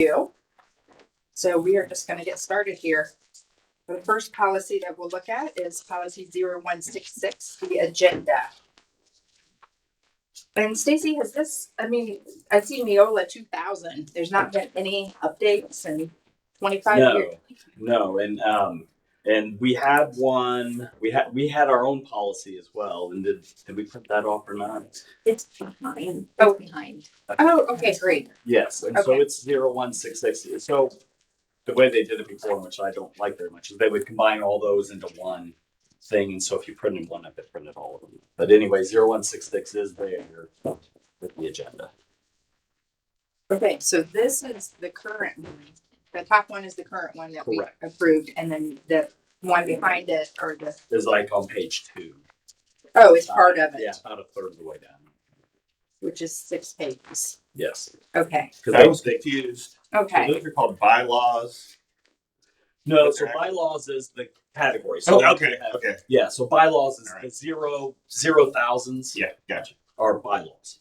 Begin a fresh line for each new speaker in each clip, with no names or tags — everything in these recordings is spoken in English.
you. So we are just gonna get started here. The first policy that we'll look at is policy 0166, the agenda. And Stacy, has this, I mean, I see Neola two thousand, there's not been any updates in twenty-five
No.
years.
No, and um, and we had one. We had we had our own policy as well. And did did we print that off or not?
It's behind.
Oh.
behind.
Oh, okay, great.
Yes. And so
Okay.
it's zero one six six. So the way they did it before, which I don't like very much, is they would combine all those into one thing. And so if you printed one up, it printed all of them. But anyway, zero one six six is there with the agenda.
Okay, so this is the current one. The top one is the current one that we
Correct.
approved, and then the one behind it, or the,
Is like on page two.
oh, it's part of
Yeah,
it,
about a third of the way down.
which is six pages.
Yes.
Okay,
Because
I
they
was confused. So
okay,
Those are called bylaws.
No, so bylaws is the category. So
Oh, okay, okay.
Yeah, so bylaws is
All right.
the zero zero thousands
Yeah, gotcha.
are bylaws.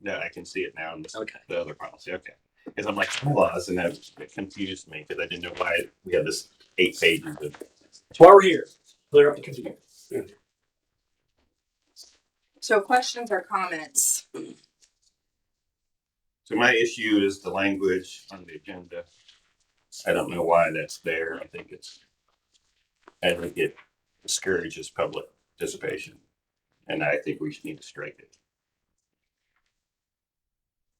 No, I can see it now in this-
Okay.
the other policy. Okay. Because I'm like, bylaws, and that it confused me because I didn't know why we had this eight pages of.
That's why we're here. Clear up the confusion.
so questions or comments?
So my issue is the language on the agenda. I don't know why that's there. I think it's, I think it discourages public participation. And I think we should need to strike it.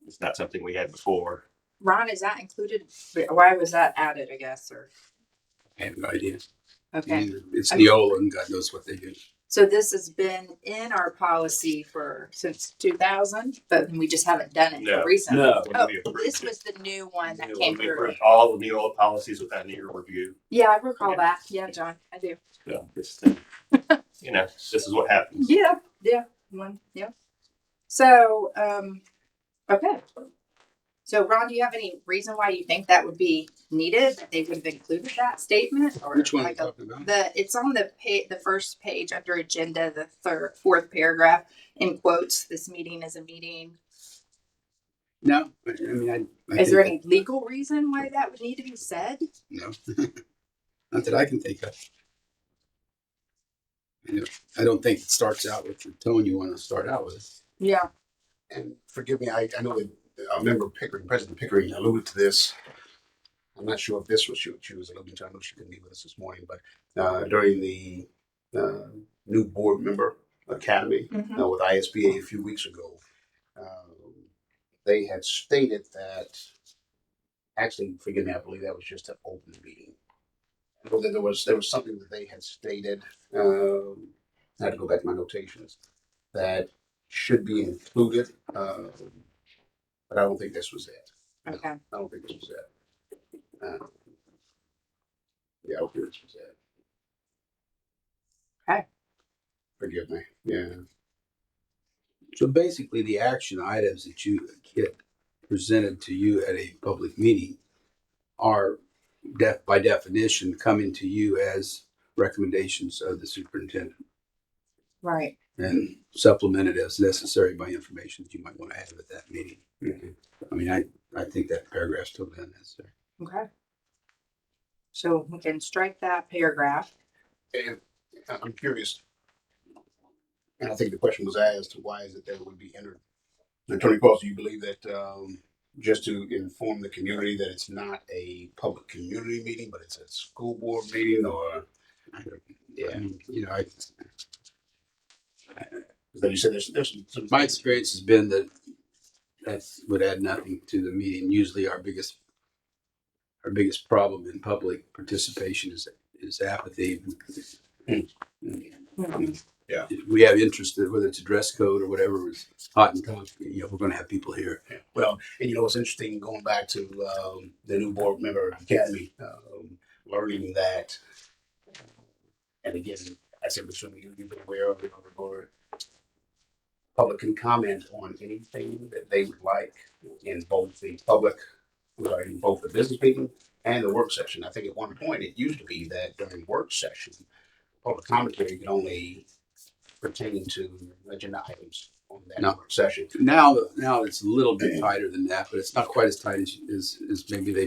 It's not something we had before.
Ron, is that included? Why was that added, I guess, or,
I have no idea.
okay.
It's Neola and God knows what they do.
So this has been in our policy for, since two thousand, but we just haven't done
No.
it recently.
No.
When
Oh,
we approved
this
it.
was the new one that
New
came
We
through.
approved all the new old policies without any review.
Yeah, I recall
Okay.
that. Yeah, John, I do.
So this, you know, this is what happens.
Yeah, yeah, one, yeah. So, um, okay. So Ron, do you have any reason why you think that would be needed? That they would have included that statement or?
Which one are you
like a-
talking about?
The, it's on the pa- the first page under agenda, the third, fourth paragraph in quotes, this meeting is a meeting.
No, I I mean, I. I
Is there
think-
any legal reason why that would need to be said?
No. Not that I can think of. I don't- I don't think it starts out with the tone you want to start out with.
Yeah.
and forgive me, I, I know that uh, member Pickering, President Pickering alluded to this. I'm not sure if this was she, she was alluding to, I know she couldn't be with us this morning, but uh, during the uh, new board member academy
Mhm.
uh, with ISBA a few weeks ago, um, they had stated that, actually, forgive me, I believe that was just an open meeting. Well, then there was, there was something that they had stated, um, I had to go back to my notations, that should be included, um, but I don't think this was it.
Okay.
I don't think this was it. Uh, Yeah, I don't think this was it.
Okay.
Forgive me, yeah.
So basically, the action items that you get presented to you at a public meeting are def, by definition, coming to you as recommendations of the superintendent.
Right.
and supplemented as necessary by information that you might want to add at that meeting.
Mm-hmm.
I mean, I, I think that paragraph's totally unnecessary.
Okay. So we can strike that paragraph.
And I- I'm curious, and I think the question was asked, why is it that it would be entered? Attorney Cross, do you believe that, um, just to inform the community that it's not a public community meeting, but it's a school board meeting or?
I
Yeah,
mean, You know, I,
because you said there's, there's some- some.
my experience has been that that would add nothing to the meeting. Usually our biggest, our biggest problem in public participation is, is apathy.
Hmm.
Mm-hmm.
We have interest in whether it's a dress code or whatever was hot and topic, you know, we're going to have people here.
Well, and you know, it's interesting going back to, um, the new board member academy, um, learning that. And again, I said, assuming you, you've been aware of it or- or public can comment on anything that they would like in both the public, regarding both the business meeting and the work session. I think at one point, it used to be that during work session, public commentary could only pertain to agenda items
on that
No.
work session.
Now, now it's a little bit tighter than that, but it's not quite as tight as, as, as maybe they